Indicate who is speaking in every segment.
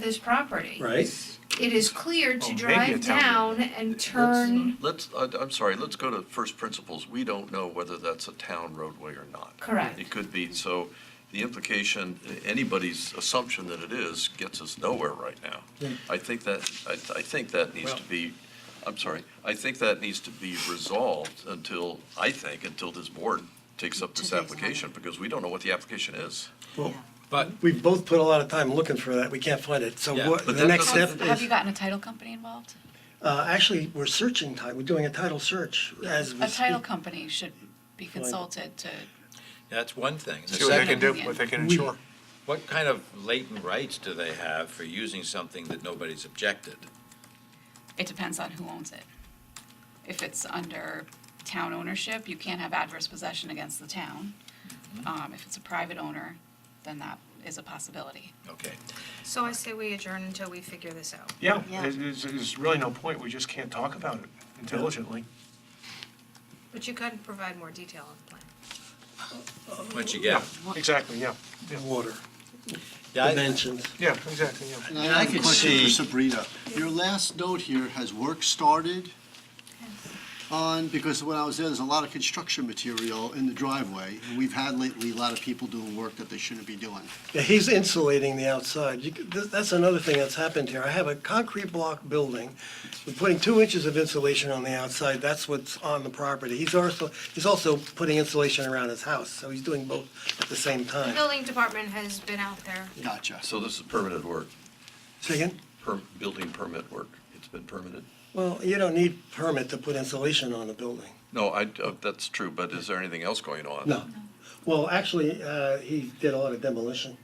Speaker 1: this property.
Speaker 2: right?
Speaker 1: It is clear
Speaker 3: Oh,
Speaker 1: to
Speaker 3: maybe
Speaker 1: drive
Speaker 3: it's out
Speaker 1: down and
Speaker 4: uh,
Speaker 1: turn,
Speaker 5: Let's, I- I'm sorry, let's go to first principles. We don't know whether that's a town roadway or not.
Speaker 1: Correct.
Speaker 5: It could be, so the implication, anybody's assumption that it is gets us nowhere right now. I think that, I, I think that needs to be, I'm sorry, I think that needs to be resolved until, I think, until this board takes up this
Speaker 6: Until they
Speaker 5: application, because we don't know what the application is.
Speaker 2: Well,
Speaker 3: But
Speaker 2: we've Uh, both put a lot of time looking for that, we can't find it, so
Speaker 3: Yeah.
Speaker 2: what,
Speaker 5: But
Speaker 2: the
Speaker 5: that
Speaker 2: next step
Speaker 6: Have have you
Speaker 2: is,
Speaker 6: gotten a title company involved?
Speaker 2: uh, actually, we're searching, ti- we're doing a title search as we
Speaker 6: A title
Speaker 2: speak.
Speaker 6: company should be consulted to,
Speaker 3: that's one thing. The
Speaker 7: See what they
Speaker 3: second,
Speaker 7: can do, what they can
Speaker 2: We-
Speaker 7: ensure.
Speaker 3: what kind of latent rights do they have for using something that nobody's objected?
Speaker 6: it depends on who owns it. If it's under town ownership, you can't have adverse possession against the town. Um, If it's a private owner, then that is a possibility.
Speaker 3: Okay.
Speaker 4: So I say we adjourn until we figure this out.
Speaker 7: Yeah,
Speaker 6: Yeah.
Speaker 7: there's, there's- there's really no point, we just can't talk about it intelligently.
Speaker 4: But you could provide more detail on the plan.
Speaker 3: What you get?
Speaker 7: Exactly, yeah,
Speaker 2: Water,
Speaker 3: Yeah, I-
Speaker 2: dimensions.
Speaker 7: yeah, exactly, yeah.
Speaker 8: And I have a question for Sabrina. Your last note here, has work started on, because when I was there, there's a lot of construction material in the driveway, and we've had lately a lot of people doing work that they shouldn't be doing.
Speaker 2: Yeah, he's insulating the outside. You could- th- That's another thing that's happened here. I have a concrete block building. We're putting two inches of insulation on the outside. That's what's on the property. He's also, he's also putting insulation around his house, so he's doing both at the same
Speaker 4: The
Speaker 2: time.
Speaker 4: building department has been out there.
Speaker 8: Gotcha.
Speaker 5: So this is permitted work,
Speaker 2: Say again?
Speaker 5: per, building permit work. It's been permitted.
Speaker 2: Well, you don't need permit to put insulation on a building.
Speaker 5: No, I, uh, that's true, but is there anything else going on?
Speaker 2: No. Well, actually, uh, he did a lot of demolition.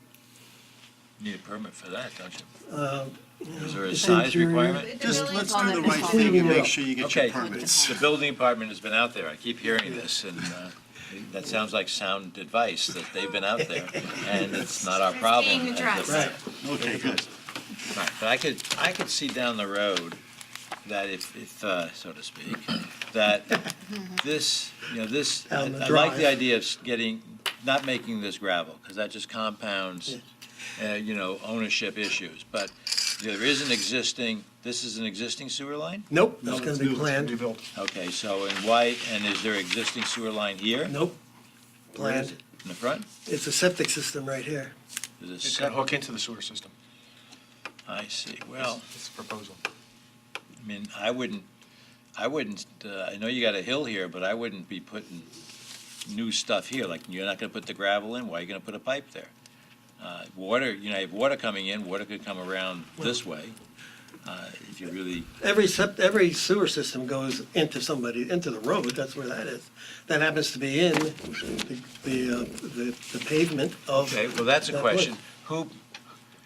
Speaker 3: Need a permit for that, don't you?
Speaker 2: Uh,
Speaker 3: Is there a
Speaker 2: It's
Speaker 3: size
Speaker 2: interior.
Speaker 3: requirement?
Speaker 8: Uh, Just let's do the
Speaker 6: Well,
Speaker 8: right
Speaker 6: it's
Speaker 8: thing and
Speaker 2: cleaning
Speaker 8: make
Speaker 2: up.
Speaker 8: sure you get
Speaker 3: Okay,
Speaker 8: your permits.
Speaker 3: the building department has been out there, I keep hearing this, and uh, that sounds like sound advice, that they've been out there, and it's not our
Speaker 4: It's
Speaker 3: problem.
Speaker 4: being addressed.
Speaker 2: Right.
Speaker 8: Okay, good.
Speaker 3: Right, but I could, I could see down the road that if, if, uh, so to speak, that this, you know, this, I
Speaker 2: Down the
Speaker 3: like
Speaker 2: drive.
Speaker 3: the idea of s- getting, not making this gravel, because that just compounds, uh, you know, ownership issues. But there is an existing, this is an existing sewer line?
Speaker 2: Nope,
Speaker 8: No,
Speaker 2: that's gonna
Speaker 8: it's
Speaker 2: be
Speaker 8: new, it's
Speaker 2: planned.
Speaker 8: gonna be built.
Speaker 3: Okay, so in white, and is there existing sewer line here?
Speaker 2: Nope,
Speaker 3: Where is
Speaker 2: planned.
Speaker 3: it? In the front?
Speaker 2: It's a septic system right here.
Speaker 3: Is it
Speaker 7: It's gonna
Speaker 3: separate?
Speaker 7: hook into the sewer system.
Speaker 3: I see,
Speaker 2: Oh.
Speaker 3: well.
Speaker 7: It's a proposal.
Speaker 3: I mean, I wouldn't, I wouldn't, uh, I know you got a hill here, but I wouldn't be putting new stuff here, like, you're not gonna put the gravel in, why are you gonna put a pipe there? Uh, Water, you know, if water coming in, water could come around this way, uh, if you really,
Speaker 2: Every sep, every sewer system goes into somebody, into the road, that's where that is. That happens to be in the, the, uh, the the pavement of.
Speaker 3: okay, well, that's a
Speaker 2: that
Speaker 3: question.
Speaker 2: wood.
Speaker 3: Who,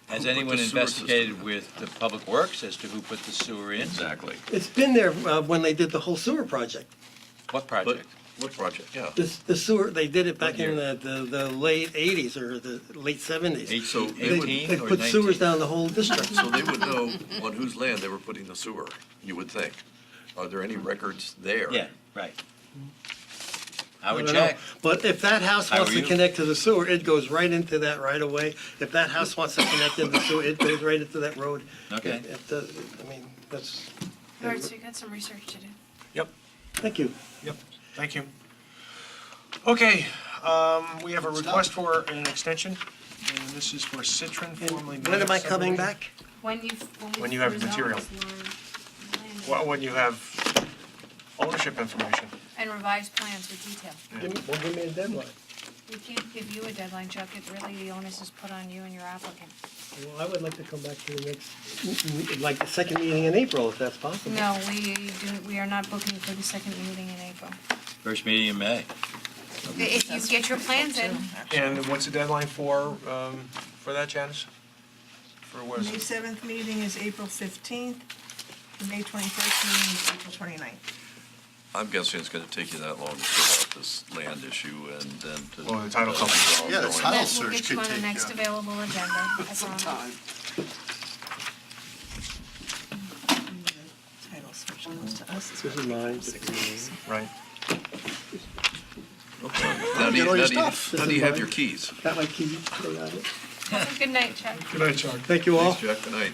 Speaker 3: has
Speaker 5: the
Speaker 3: anyone
Speaker 5: sewer system
Speaker 3: investigated
Speaker 5: in?
Speaker 3: with the Public Works as to who put the sewer in?
Speaker 5: Exactly.
Speaker 2: It's been there, uh, when they did the whole sewer project.
Speaker 3: What
Speaker 5: But,
Speaker 3: project?
Speaker 5: what project, yeah.
Speaker 2: This, the sewer, they did it back in
Speaker 3: What year?
Speaker 2: the, the, the late eighties or the late seventies.
Speaker 3: Eight-
Speaker 5: So they would-
Speaker 2: They,
Speaker 3: 18
Speaker 2: they
Speaker 3: or
Speaker 2: put sewers
Speaker 3: 19?
Speaker 2: down the whole district.
Speaker 5: So they would know on whose land they were putting the sewer, you would think. Are there any records there?
Speaker 3: Yeah, right. I would
Speaker 2: don't know.
Speaker 3: check.
Speaker 2: But if that house
Speaker 3: How
Speaker 2: wants
Speaker 3: are
Speaker 2: to
Speaker 3: you?
Speaker 2: connect to the sewer, it goes right into that right of way. If that house wants to connect into the sewer, it goes right into that road.
Speaker 3: Okay.
Speaker 2: It- it does- I mean, that's,
Speaker 1: all right, so you got some research to do.
Speaker 7: Yep,
Speaker 2: thank you.
Speaker 7: yep, thank you. Okay, um, we have a request for an extension, and this is for Citron formerly.
Speaker 2: When am I coming
Speaker 7: Managed Subdivision.
Speaker 2: back?
Speaker 1: When you,
Speaker 7: When you have material. Well, when you have ownership information.
Speaker 4: And revised plans with detail.
Speaker 2: Give me- Well, give me a deadline.
Speaker 4: We can't give you a deadline, Chuck. It really, the onus is put on you and your applicant.
Speaker 2: Well, I would like to come back to the next, like the second meeting in April, if that's possible.
Speaker 4: No, we do, we are not booking for the second meeting in April.
Speaker 3: First meeting in May.
Speaker 4: If you get your plans in,
Speaker 7: And what's the deadline for, um, for that, Janice? For what
Speaker 9: May
Speaker 7: is it?
Speaker 9: seventh meeting is April fifteenth, the May twenty-first meeting is April 29th.
Speaker 5: I'm guessing it's gonna take you that long to sort out this land issue and then to.
Speaker 7: Well, the title company.
Speaker 8: Yeah, the title
Speaker 4: that will
Speaker 8: search
Speaker 4: get
Speaker 8: could
Speaker 4: you on the
Speaker 8: take,
Speaker 4: next
Speaker 8: uh,
Speaker 4: available agenda. I promise.
Speaker 6: Sometime.
Speaker 9: Title search comes to us.
Speaker 2: Mm-hmm. This is mine.
Speaker 7: Right.
Speaker 5: Now, do you,
Speaker 8: Get
Speaker 5: now
Speaker 8: all your
Speaker 5: do you-
Speaker 8: stuff.
Speaker 5: now do you have your keys?
Speaker 2: Got my key, they got it.
Speaker 10: Have a good night, Chuck.
Speaker 11: Good night, Chuck.
Speaker 4: Thank you all.
Speaker 5: Thanks, Jack, good night.